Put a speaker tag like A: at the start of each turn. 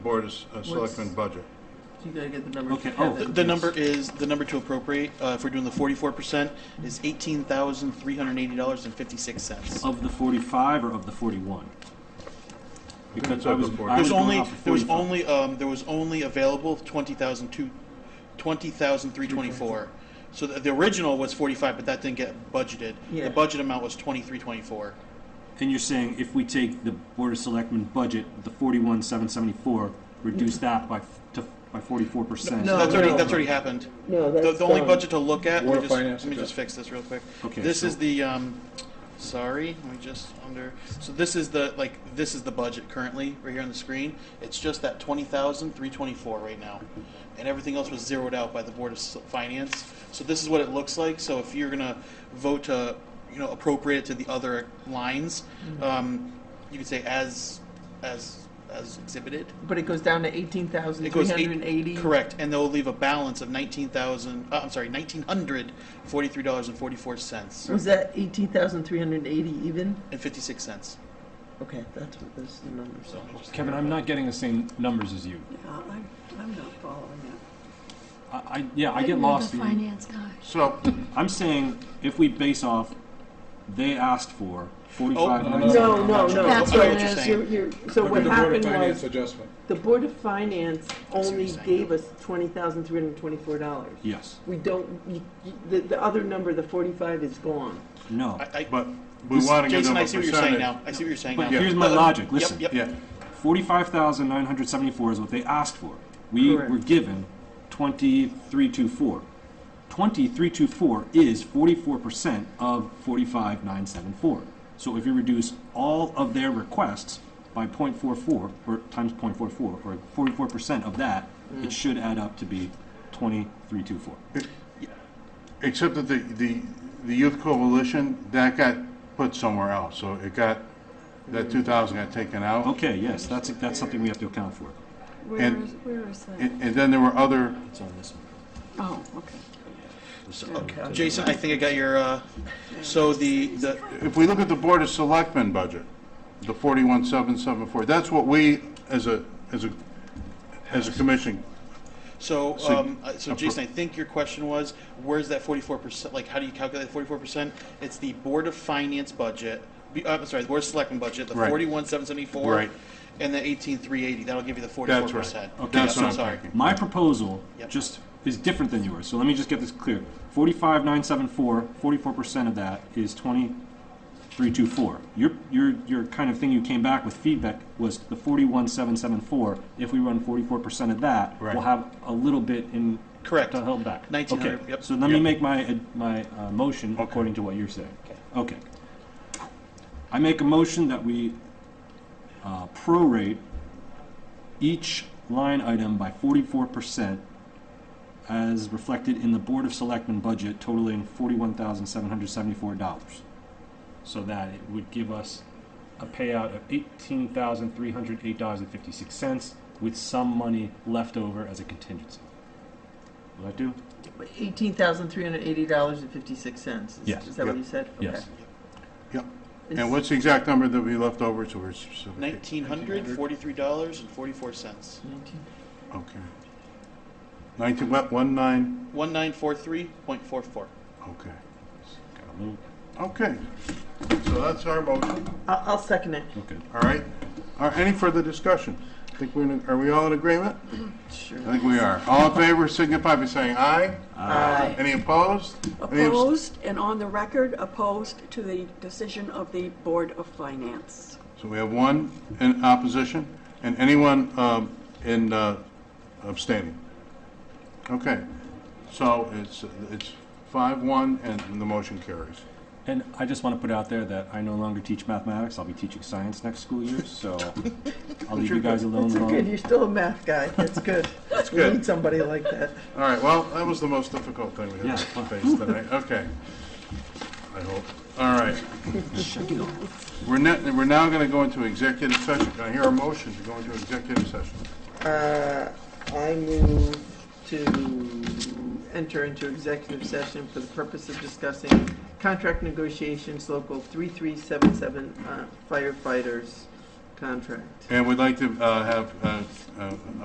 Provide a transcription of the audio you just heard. A: Board of S- uh, Selectmen budget.
B: You gotta get the numbers.
C: Okay,
B: Kevin.
C: oh,
D: The, the number is, the number to appropriate, uh, if we're doing the forty-four percent, is eighteen thousand, three hundred and eighty dollars and fifty-six cents.
C: Of the 45 or of the 41? Because
A: it's
C: I
A: of the
C: was, I
A: 40.
C: was
D: There's
C: going
D: only,
C: off of
D: there was
C: 45.
D: only, um, there was only available twenty thousand two, twenty thousand, three twenty-four. So the, the original was forty-five, but that didn't get budgeted.
B: Yeah.
D: The budget amount was twenty-three, twenty-four.
C: And you're saying if we take the Board of Selectmen budget, the 41, 774, reduce that by, f- to, by 44%?
B: No,
D: That's already,
B: no.
D: that's already happened.
E: No,
D: The,
E: that's
D: the only
E: done.
D: budget to look at, let
A: Warrant
D: me just,
A: finance
D: let me
A: is
D: just
A: up.
D: fix this real quick.
C: Okay,
D: This
C: so-
D: is the, um, sorry, let me just under, so this is the, like, this is the budget currently, right here on the screen. It's just that twenty thousand, three twenty-four right now. And everything else was zeroed out by the Board of S- Finance. So this is what it looks like, so if you're gonna vote to, you know, appropriate it to the other lines,
E: Mm-hmm.
D: um, you could say as, as, as exhibited.
B: But it goes down to eighteen thousand
D: It
B: three
D: goes eight-
B: hundred and eighty.
D: Correct, and they'll leave a balance of nineteen thousand. Uh, I'm sorry, nineteen hundred forty-three dollars and forty-four cents
B: Was that eighteen thousand three hundred and eighty even?
D: and fifty-six cents.
B: Okay, that's what those the numbers
D: So
B: are.
D: I just-
F: Kevin, I'm not getting the same numbers as you.
E: I'm, I'm not following that.
C: I, I, yeah, I get
G: You're
C: lost.
G: The
C: in-
G: finance guy.
A: So,
C: I'm saying if we base off, they asked for 45,
D: Oh,
C: nine-
E: No, no, no.
D: I
G: That's
D: know
G: what
D: what
G: it
D: you're
G: is.
E: You're,
D: saying.
E: you're, so
A: look at
E: what
A: the Board of
E: happened
A: Finance
E: was,
A: adjustment.
E: the Board of Finance
D: what
E: only
D: you're saying.
E: gave us twenty thousand three hundred and twenty-four dollars.
C: Yes,
E: We don't, you- you- the, the other number, the forty-five, is gone.
C: no.
D: I, I,
A: But we want to give
D: Jason,
A: them a
D: I see what you're saying
A: percentage.
D: now. I see what you're saying
C: But
D: now.
C: here's my
D: Uh,
C: logic,
D: yep,
C: listen.
D: Yep,
A: Yeah,
C: 45,974 is what they asked for. We
B: Correct.
C: were given 2324. 2324 is 44% of 45,974. So if you reduce all of their requests by 0.44 or times 0.44 or 44% of that, it should add up to be 2324.
A: except that the, the, the Youth Coalition, that got put somewhere else, so it got, that two thousand got taken out.
C: Okay, yes, that's that's something we have to account for.
G: Where
A: And-
G: is, where is that?
A: And, and then there were other,
C: It's on this one.
G: Oh, okay.
D: yep. Oh, Jason, I think I got your. Uh, so the the
A: if we look at the Board of Selectmen budget, the forty-one, seven, seven, four, that's what we, as a, as a, as a commission,
D: so
A: So-
D: um, uh, so Jason, I think your question was where's that forty-four percent? Like, how do you calculate forty-four percent? It's the Board of Finance budget. be- Uh, I'm sorry, the Board of Selectmen budget, the
A: Right.
D: forty-one seven seventy-four,
A: Right.
D: and the eighteen three eighty. That'll give you the forty-four
A: that's
D: percent.
A: right. That's
D: so
A: what I'm
D: sorry.
A: thinking.
C: My proposal
D: Yep.
C: just is different than yours, so let me just get this clear. Forty-five, nine, seven, four, forty-four percent of that is twenty-three, two, four. Your, your, your kind of thing you came back with feedback was the forty-one, seven, seven, four. If we run forty-four percent of that,
A: Right.
C: we'll have a little bit in.
D: Correct.
C: To help back.
D: 1900,
C: Okay,
D: yep.
C: So let me
A: Yep.
C: make my, uh, my, uh, motion according to what you're saying. Okay. I make a motion that we, uh, prorate each line item by forty-four percent as reflected in the Board of Selectmen budget totaling forty-one thousand seven hundred seventy-four dollars. So that it would give us a payout of eighteen thousand three hundred eight dollars and fifty-six cents with some money left over as a contingency. Will that do?
B: Eighteen thousand three hundred and eighty dollars and fifty-six cents.
C: Yes.
B: Is that what
A: Yep.
B: you said?
C: Yes.
A: Yep.
B: Okay.
A: And what's the exact number that we left over, so we're specific?
D: Nineteen hundred forty-three dollars and forty-four cents.
A: Okay. Nineteen, what, one nine,
D: One nine four three point four four.
A: okay.
C: Got a little-
A: Okay, so that's our motion,
B: I'll, I'll second it.
C: Okay.
A: all right? Are, any further discussion? I think we're, in- are we all in agreement?
B: Sure.
A: I think we are. All in favor signify by saying aye.
B: Aye.
A: Any opposed? Any abs-
E: Opposed, and on the record, opposed to the decision of the Board of Finance.
A: So we have one in opposition, and anyone um, in uh, abstaining. Okay, so it's, it's five, one, and the motion carries.
C: And I just want to put out there that I no longer teach mathematics. I'll be teaching science next school year, so I'll leave you guys alone.
B: It's
C: long.
B: okay. You're still a math guy. That's good. That's
A: good.
B: We need somebody like that.
A: All right, well, that was the most difficult thing we had to
C: Yeah.
A: face tonight, okay. I hope, all right. We're not, we're now gonna go into executive session, can I hear a motion to go into executive session?
B: Uh, I move to enter into executive session for the purpose of discussing contract negotiations, local 3377 uh, firefighters, contract.
A: And we'd like to uh, have uh, uh,